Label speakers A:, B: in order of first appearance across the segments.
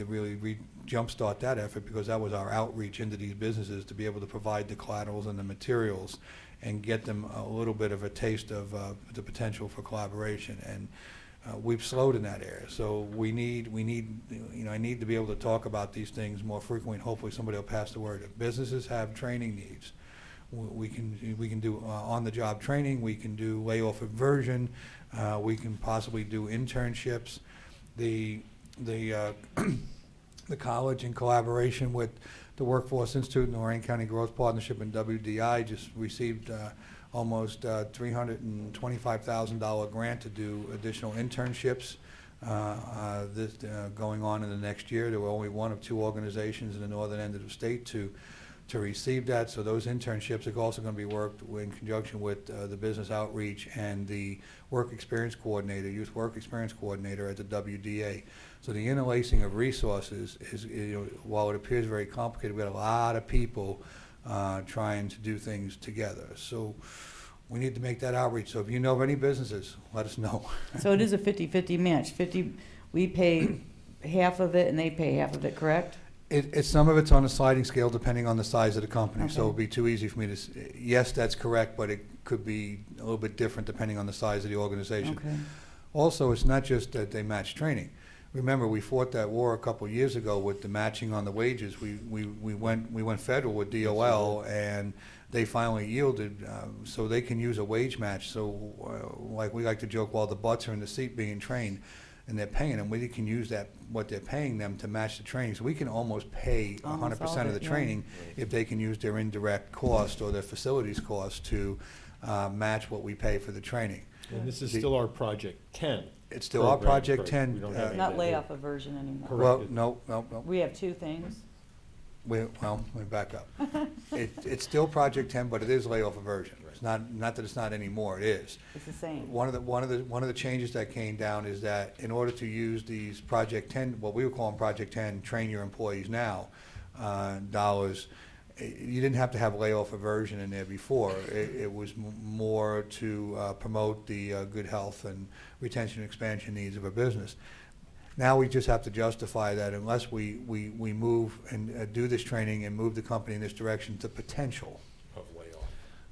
A: to really re- jumpstart that effort, because that was our outreach into these businesses, to be able to provide the collaterals and the materials and get them a little bit of a taste of uh, the potential for collaboration. And uh, we've slowed in that area. So we need, we need, you know, I need to be able to talk about these things more frequently, and hopefully somebody will pass the word. If Businesses have training needs. We- We can, we can do uh, on-the-job training, we can do layoff aversion, uh, we can possibly do internships. The, the, uh, the college in collaboration with the Workforce Institute and Lorraine County Growth Partnership and WDI just received uh, almost uh, $325,000 grant to do additional internships uh, uh, this, uh, going on in the next year. There were only one of two organizations in the northern end of the state to, to receive that. So those internships are also going to be worked in conjunction with uh, the business outreach and the work experience coordinator, youth work experience coordinator at the WDA. So the interlacing of resources is, you know, while it appears very complicated, we had a lot of people uh, trying to do things together. So we need to make that outreach. So if you know of any businesses, let us know.
B: So it is a 50-50 match, 50, we pay half of it and they pay half of it, correct?
A: It, it's, some of it's on a sliding scale depending on the size of the company, so
B: Okay.
A: it'd be too easy for me to, s- yes, that's correct, but it could be a little bit different depending on the size of the organization.
B: Okay.
A: Also, it's not just that they match training. Remember, we fought that war a couple of years ago with the matching on the wages. We, we, we went, we went federal with DOL, and they finally yielded, um, so they can use a wage match. So, uh, like, we like to joke, while the butts are in the seat being trained, and they're paying them, we can use that, what they're paying them to match the training. So we can almost pay a hundred
B: Almost all
A: percent of
B: of
A: the
B: it, yeah.
A: training if they can use their indirect cost or their facilities cost to, uh, match what we pay for the training.
C: And this is
A: The-
C: still our Project 10.
A: It's still our
C: program,
A: Project
C: correct.
A: 10,
C: We don't
A: uh,
C: have
B: Not
C: anything.
B: layoff aversion anymore.
C: Correct.
A: Well, no, no, no.
B: We have two things.
A: We, well, let me back up. It, it's still Project Ten, but it is layoff aversion. It's not, not that it's not anymore, it is.
B: It's the same.
A: One of the, one of the, one of the changes that came down is that in order to use these Project Ten, what we were calling Project Ten, train your employees now, uh, dollars, eh, you didn't have to have layoff aversion in there before. It, it was m- more to, uh, promote the, uh, good health and retention and expansion needs of a business. Now we just have to justify that unless we, we, we move and uh, do this training and move the company in this direction to potential
C: Of layoff.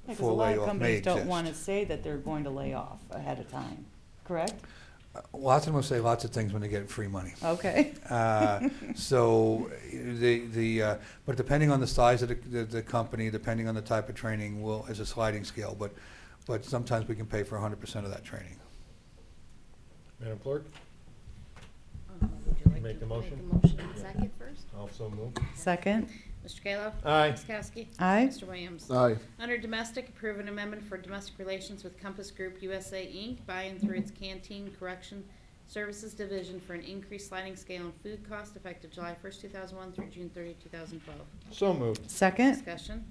B: Because a
A: for
B: lot of
A: layoff may
B: companies don't
A: exist.
B: want to say that they're going to lay off ahead of time, correct?
A: Uh, Lots of them will say lots of things when they get free money.
B: Okay.
A: Uh, So, the, the, uh, but depending on the size of the, the- the company, depending on the type of training, will, is a sliding scale, but, but sometimes we can pay for hundred percent of that training.
C: Madam Clerk,
D: Would you like
C: Make
D: to
C: the motion?
D: Make the motion and second first.
C: also move.
B: Second,
D: Mr. Kayla.
C: Aye.
D: Ms. Kowski.
B: Aye.
D: Mr. Williams.
E: Aye,
D: Under Domestic, approve an amendment for domestic relations with Compass Group USA Inc. by and through its Canteen Correction Services Division for an increased sliding scale in food cost effective July 1st, 2001 through June 30, 2012.
C: So moved.
B: second,
D: Discussion.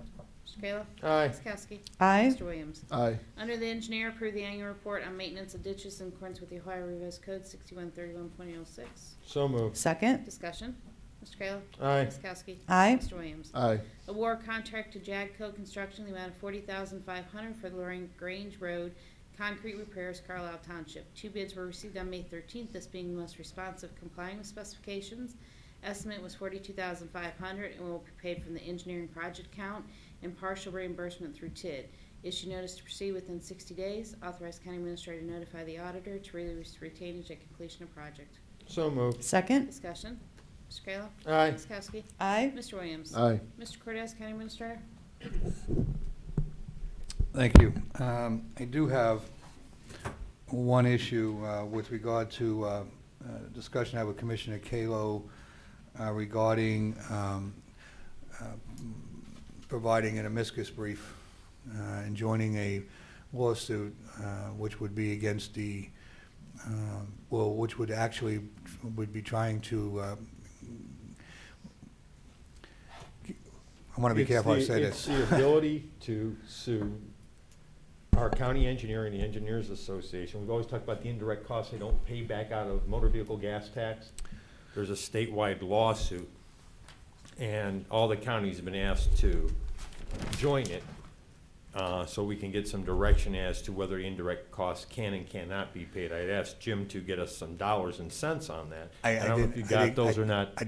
D: Mr. Kayla.
C: Aye.
D: Ms. Kowski.
B: Eh. aye,
D: Mr. Williams.
E: aye,
D: Under the engineer, approve the annual report on maintenance of ditches in accordance with the Ohio Revised Code 6131.06.
C: So moved.
B: second,
D: Discussion. Mr. Kayla.
C: Aye.
D: Ms. Kowski.
B: aye,
D: Mr. Williams.
E: aye,
D: Award contract to Jagco Construction, the amount of forty thousand five hundred for Lorraine Grange Road concrete repairs, Carlisle Township. Two bids were received on May thirteenth, this being the most responsive complying with specifications. Estimate was forty-two thousand five hundred and will be paid from the engineering project count and partial reimbursement through TID. Issue notice to proceed within sixty days. Authorized county administrator to notify the auditor to release retainage at completion of project.
C: So moved.
B: second,
D: Discussion. Mr. Kayla.
C: Aye.
D: Ms. Kowski.
B: aye,
D: Mr. Williams.
E: aye,
D: Mr. Cortez, county administrator.
A: Thank you. Um, I do have one issue uh, with regard to uh, uh, discussion I had with Commissioner Kalo uh, regarding um, uh, providing an amicus brief uh, and joining a lawsuit uh, which would be against the, uh, well, which would actually, would be trying to, uh, I want to be
C: It's
A: careful I
C: the-
A: say
C: It's
A: this.
C: the ability to sue our county engineer and the Engineers Association. We've always talked about the indirect costs they don't pay back out of motor vehicle gas tax. There's a statewide lawsuit, and all the counties have been asked to join it uh, so we can get some direction as to whether indirect costs can and cannot be paid. I'd asked Jim to get us some dollars and cents on that.
A: I- I
C: don't know if
A: didn't-
C: you
A: I
C: got
A: didn't-
C: those
A: I-
C: or not.
A: I